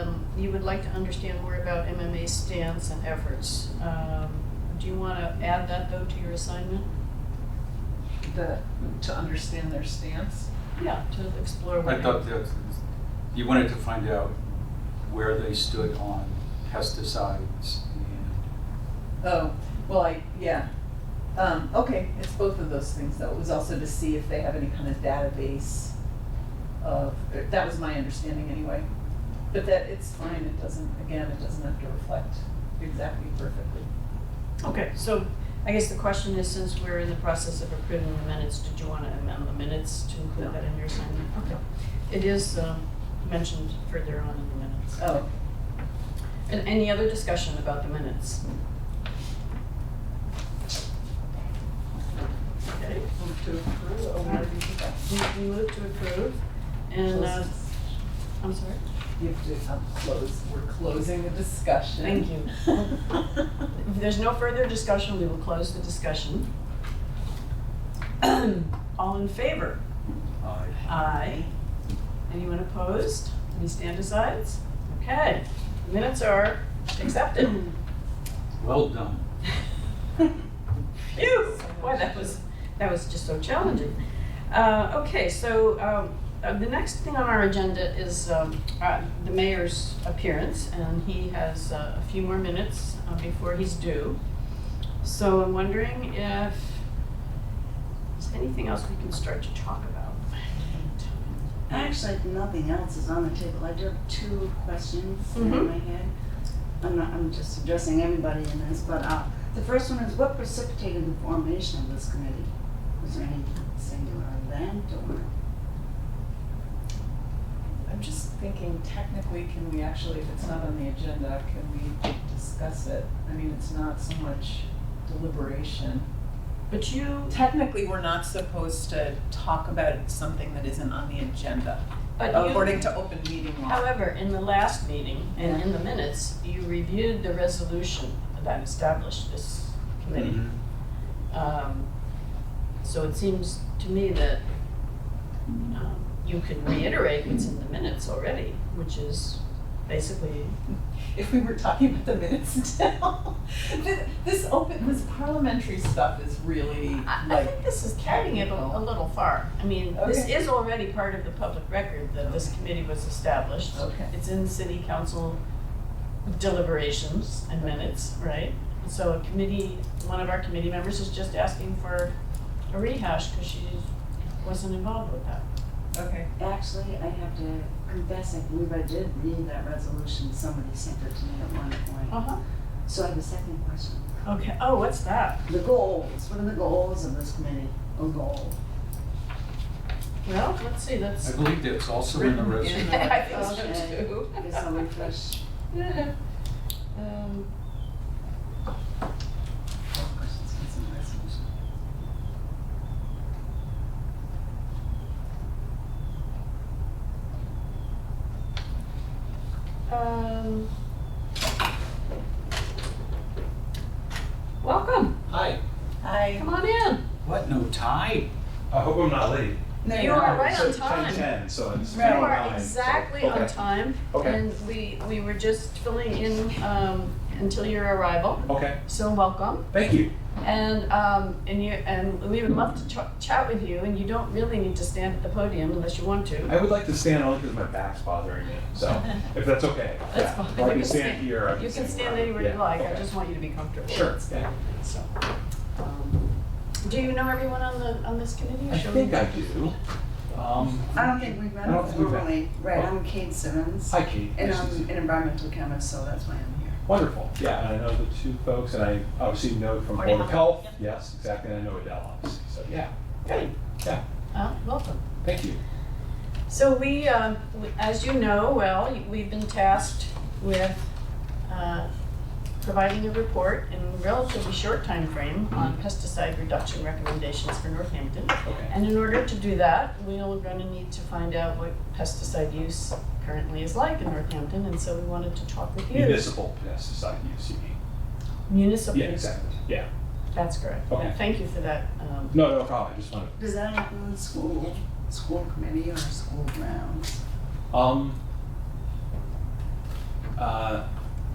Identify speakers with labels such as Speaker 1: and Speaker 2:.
Speaker 1: Um, you would like to understand more about MMA's stance and efforts. Um, Do you want to add that, though, to your assignment?
Speaker 2: The, to understand their stance.
Speaker 1: Yeah, to explore what.
Speaker 3: I thought that, you wanted to find out where they stood on pesticides and,
Speaker 2: Oh, well, I, yeah. Um, okay, it's both of those things though. It was also to see if they have any kind of database of, er, that was my understanding anyway. But that, it's fine, it doesn't, again, it doesn't have to reflect exactly perfectly.
Speaker 1: Okay, so I guess the question is, since we're in the process of approving the minutes, did you want to amend the minutes to include
Speaker 2: No.
Speaker 1: that in your assignment? Okay. It is um, mentioned further on in the minutes. Uh,
Speaker 2: Oh,
Speaker 1: And any other discussion about the minutes? Okay,
Speaker 2: move to approve, or where do you think that?
Speaker 1: we- we move to approve, and, uh, I'm sorry?
Speaker 2: You have to, um, close, we're closing the discussion.
Speaker 1: Thank you. If there's no further discussion, we will close the discussion. All in favor?
Speaker 3: uh,
Speaker 1: Aye. Anyone opposed? Any stand asides? Okay, minutes are accepted.
Speaker 3: well done.
Speaker 1: Phew, boy, that was, that was just so challenging. Uh, okay, so, um, uh, the next thing on our agenda is, um, uh, the mayor's appearance, and he has uh, a few more minutes uh, before he's due. So I'm wondering if there's anything else we can start to talk about.
Speaker 4: Actually, if nothing else is on the table. I do have two questions
Speaker 1: Mhm.
Speaker 4: in my head. I'm not, I'm just addressing everybody in this, but, uh, the first one is what precipitated the formation of this committee? Was there any singular event or?
Speaker 2: I'm just thinking technically, can we actually, if it's not on the agenda, can we discuss it? I mean, it's not so much deliberation.
Speaker 1: But you,
Speaker 2: Technically, we're not supposed to talk about something that isn't on the agenda,
Speaker 1: but you.
Speaker 2: according to open meeting law.
Speaker 1: However, in the last meeting and in the minutes, you reviewed the resolution that established this committee.
Speaker 5: Mm-hmm.
Speaker 3: Mhm.
Speaker 1: Um, So it seems to me that um, you could reiterate what's in the minutes already, which is basically,
Speaker 2: If we were talking about the minutes now, this, this open, this parliamentary stuff is really
Speaker 1: I I
Speaker 2: like,
Speaker 1: think this is carrying it a- a little far. I mean, this
Speaker 2: Okay.
Speaker 1: is already part of the public record that this committee was established.
Speaker 2: Okay.
Speaker 1: It's in city council deliberations and minutes, right? So a committee, one of our committee members is just asking for a rehash because she wasn't involved with that.
Speaker 2: okay,
Speaker 4: Actually, I have to confess, I believe I did read that resolution. Somebody sent it to me at one point.
Speaker 1: Uh-huh.
Speaker 4: So I have a second question.
Speaker 1: Okay, oh, what's that?
Speaker 4: The goals, what are the goals of this committee? A goal?
Speaker 1: Well, let's see, that's.
Speaker 3: I believe that's also in the
Speaker 2: written
Speaker 3: resolution.
Speaker 2: in the,
Speaker 1: I think so,
Speaker 4: Okay,
Speaker 1: too.
Speaker 4: Oh, I guess I'll refresh.
Speaker 1: Um,
Speaker 4: Questions, concerns, resolution.
Speaker 1: um, Welcome,
Speaker 3: Hi,
Speaker 2: I,
Speaker 1: come on in.
Speaker 3: what, no tie?
Speaker 5: I hope I'm not late.
Speaker 2: no,
Speaker 1: You
Speaker 2: you're
Speaker 1: are
Speaker 2: not.
Speaker 1: right on
Speaker 5: It's
Speaker 1: time.
Speaker 5: 10:10, so it's.
Speaker 1: You
Speaker 2: Right.
Speaker 1: are
Speaker 5: 9:09, so-
Speaker 1: exactly on
Speaker 5: okay.
Speaker 1: time.
Speaker 5: Okay.
Speaker 1: And we, we were just filling in um, until your arrival,
Speaker 5: Okay,
Speaker 1: so welcome.
Speaker 5: thank you.
Speaker 1: And, um, and you, and we would love to ch- chat with you, and you don't really need to stand at the podium unless you want to.
Speaker 5: I would like to stand on because my back's bothering me, so if that's okay.
Speaker 1: That's
Speaker 5: yeah.
Speaker 1: fine.
Speaker 5: Or
Speaker 1: You
Speaker 5: I
Speaker 1: can
Speaker 5: can
Speaker 1: stand-
Speaker 5: stand here. I
Speaker 1: You can stand
Speaker 5: wherever.
Speaker 1: anywhere you
Speaker 5: Yeah,
Speaker 1: like, I
Speaker 5: okay.
Speaker 1: just want you to be comfortable.
Speaker 5: Sure, yeah.
Speaker 1: So, um, Do you know everyone on the, on this committee? or
Speaker 5: I
Speaker 1: shall we-
Speaker 5: think I do. Um,
Speaker 4: I don't think we've met
Speaker 5: I don't think we've met.
Speaker 4: formally, right, I'm Kate Simmons,
Speaker 5: Hi, Kate.
Speaker 4: and
Speaker 5: Nice
Speaker 1: um,
Speaker 5: to see
Speaker 4: I'm
Speaker 5: you.
Speaker 4: an environmental chemist, so that's why I'm here.
Speaker 5: Wonderful, yeah, and I know the two folks, and I obviously know from Board of Health, yes, exactly, and I know Adele, obviously, so yeah.
Speaker 1: Great.
Speaker 5: Yeah,
Speaker 1: Uh, Welcome.
Speaker 5: thank you.
Speaker 1: So we, um, we- as you know, well, we've been tasked with uh, providing a report in a relatively short time frame on pesticide reduction recommendations for Northampton.
Speaker 5: Okay.
Speaker 1: And in order to do that, we're gonna need to find out what pesticide use currently is like in Northampton, and so we wanted to talk with you.
Speaker 5: Municipal pesticide use, you mean?
Speaker 1: Municipal.
Speaker 5: E. Yeah, exactly, yeah.
Speaker 1: That's correct.
Speaker 5: Okay.
Speaker 1: Yeah, Thank you for that. um,
Speaker 5: No, no problem, I just wanted
Speaker 4: Does that include school, school committee or school grounds?
Speaker 5: Um, Uh,